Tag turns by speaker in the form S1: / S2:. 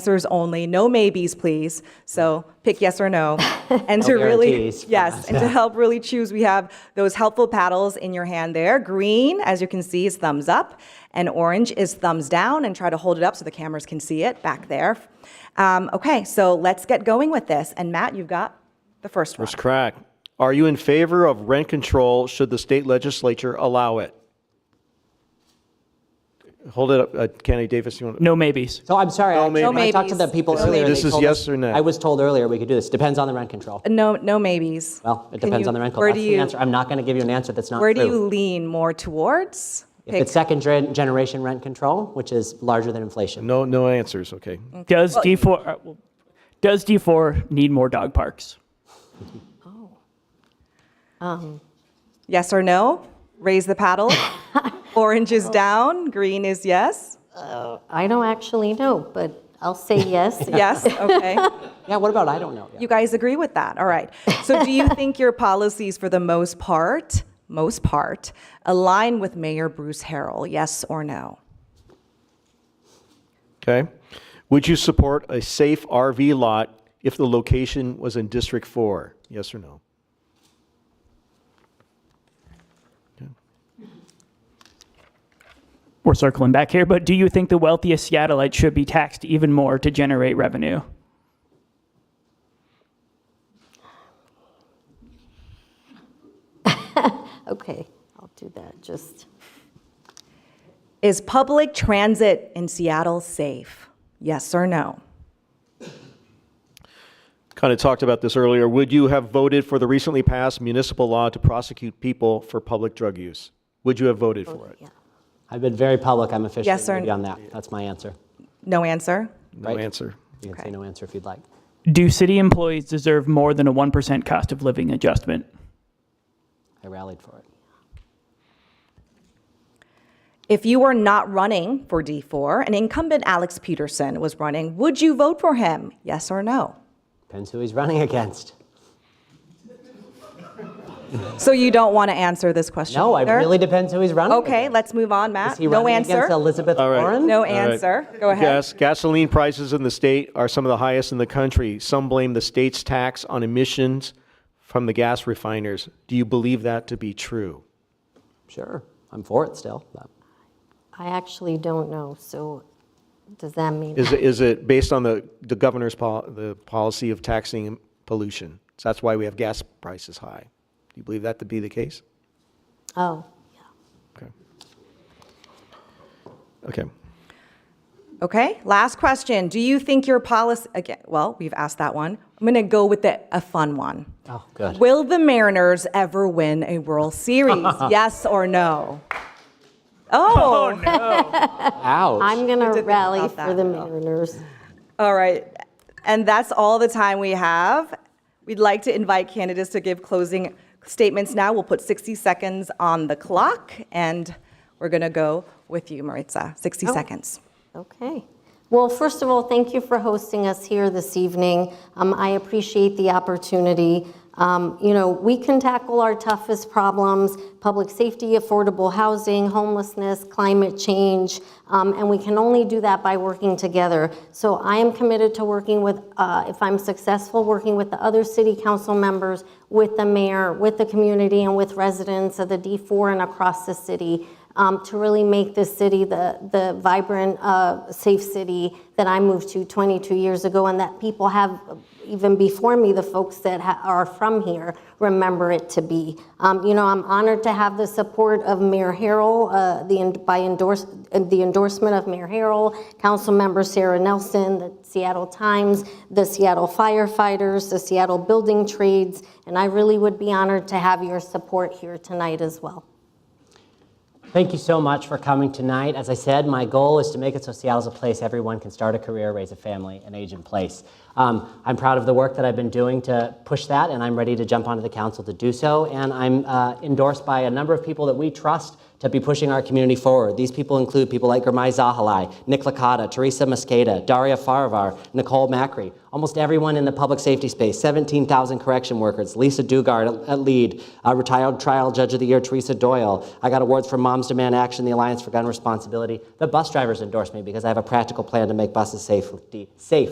S1: answers only, no maybes, please. So pick yes or no. And to
S2: No
S1: really,
S2: guarantees.
S1: yes, and to help really choose, we have those helpful paddles in your hand there. Green, as you can see, is thumbs up, and orange is thumbs down, and try to hold it up so the cameras can see it back there. Um, Okay, so let's get going with this. And Matt, you've got the first one.
S3: Mr. Crack, are you in favor of rent control should the state legislature allow it? Hold it up, uh, Kennedy Davis, you want to?
S4: No maybes.
S2: So I'm sorry, I-
S3: maybe.
S2: when I talked to the
S1: maybes.
S2: people
S1: No
S2: earlier.
S3: maybes.
S2: they
S3: This is
S2: told us-
S3: yes or no?
S2: I was told earlier we could do this. Depends on the rent control.
S1: No, no maybes.
S2: Well, it
S1: Can
S2: depends
S1: you-
S2: on the rent
S1: where
S2: control.
S1: do
S2: That's
S1: you-
S2: the answer. I'm not going to give you an answer that's not
S1: Where do you
S2: true.
S1: lean more towards?
S2: If it's second gen- generation rent control, which is larger than inflation.
S3: No, no answers, okay.
S4: Does D4 uh, well, does D4 need more dog parks?
S1: Yes or no? Raise the paddle. Orange is down, green is yes.
S5: I don't actually know, but I'll say yes.
S1: Yes, okay.
S2: Yeah, what about I don't know? yet?
S1: You guys agree with that? All right. So do you think your policies for the most part, most part, align with Mayor Bruce Harrell? Yes or no?
S3: Okay. Would you support a safe RV lot if the location was in District 4? Yes or no?
S4: We're circling back here, but do you think the wealthiest Seattleites should be taxed even more to generate revenue?
S5: Okay, I'll do that, just,
S1: Is public transit in Seattle safe? Yes or no?
S3: Kind of talked about this earlier. Would you have voted for the recently passed municipal law to prosecute people for public drug use? Would you have voted for it?
S5: yeah.
S2: I've been very public. I'm officially
S1: Yes or
S2: going to be
S1: no?
S2: on that. That's my answer.
S1: No answer?
S3: No
S2: Right.
S3: answer.
S2: You can
S1: Okay.
S2: say no answer if you'd like.
S4: Do city employees deserve more than a 1% cost of living adjustment?
S2: I rallied for it.
S1: If you were not running for D4 and incumbent Alex Peterson was running, would you vote for him? Yes or no?
S2: Depends who he's running against.
S1: So you don't want to answer this question?
S2: No, it
S1: either?
S2: really depends who he's running.
S1: Okay,
S2: against.
S1: let's move on, Matt.
S2: Is he
S1: No
S2: running
S1: answer.
S2: against Elizabeth
S3: All right.
S2: Warren?
S1: No
S3: All right.
S1: answer. Go ahead.
S3: Gas- gasoline prices in the state are some of the highest in the country. Some blame the state's tax on emissions from the gas refiners. Do you believe that to be true?
S2: Sure, I'm for it still. but-
S5: I actually don't know, so does that mean?
S3: Is, it- is it based on the, the governor's pol- the policy of taxing pollution? So that's why we have gas prices high. Do you believe that to be the case?
S5: Oh, yeah.
S3: Okay. Okay.
S1: Okay, last question. Do you think your policy, again, well, we've asked that one. I'm going to go with the, a fun one.
S2: Oh, good.
S1: Will the Mariners ever win a World Series? yes or no? Oh,
S2: Ouch.
S5: I'm going to
S1: think
S5: rally
S1: about
S5: for
S1: that
S5: the
S1: at all.
S5: Mariners.
S1: all right. And that's all the time we have. We'd like to invite candidates to give closing statements now. We'll put 60 seconds on the clock, and we're going to go with you, Maritza. 60
S2: Oh.
S1: seconds.
S5: Okay. Well, first of all, thank you for hosting us here this evening. Um, I appreciate the opportunity. Um, you know, we can tackle our toughest problems public safety, affordable housing, homelessness, climate change, um, and we can only do that by working together. So I am committed to working with, uh, if I'm successful, working with the other city council members, with the mayor, with the community, and with residents of the D4 and across the city um, to really make this city the, the vibrant, uh, safe city that I moved to 22 years ago, and that people have, even before me, the folks that ha- are from here, remember it to be. Um, you know, I'm honored to have the support of Mayor Harrell, uh, the, en- by endorse, uh, the endorsement of Mayor Harrell, Councilmember Sarah Nelson, the Seattle Times, the Seattle firefighters, the Seattle building trades, and I really would be honored to have your support here tonight as well.
S2: Thank you so much for coming tonight. As I said, my goal is to make it so Seattle's a place everyone can start a career, raise a family, and age in place. Um, I'm proud of the work that I've been doing to push that, and I'm ready to jump onto the council to do so. And I'm uh, endorsed by a number of people that we trust to be pushing our community forward. These people include people like Gurmai Zahalai, Nick Licata, Teresa Mosqueda, Daria Farivar, Nicole Macri, almost everyone in the public safety space, 17,000 correction workers, Lisa Dugard at- at LEAD, uh, retired trial judge of the year, Teresa Doyle. I got awards from Moms Demand Action, the Alliance for Gun Responsibility. The bus drivers endorsed me because I have a practical plan to make buses safe, safe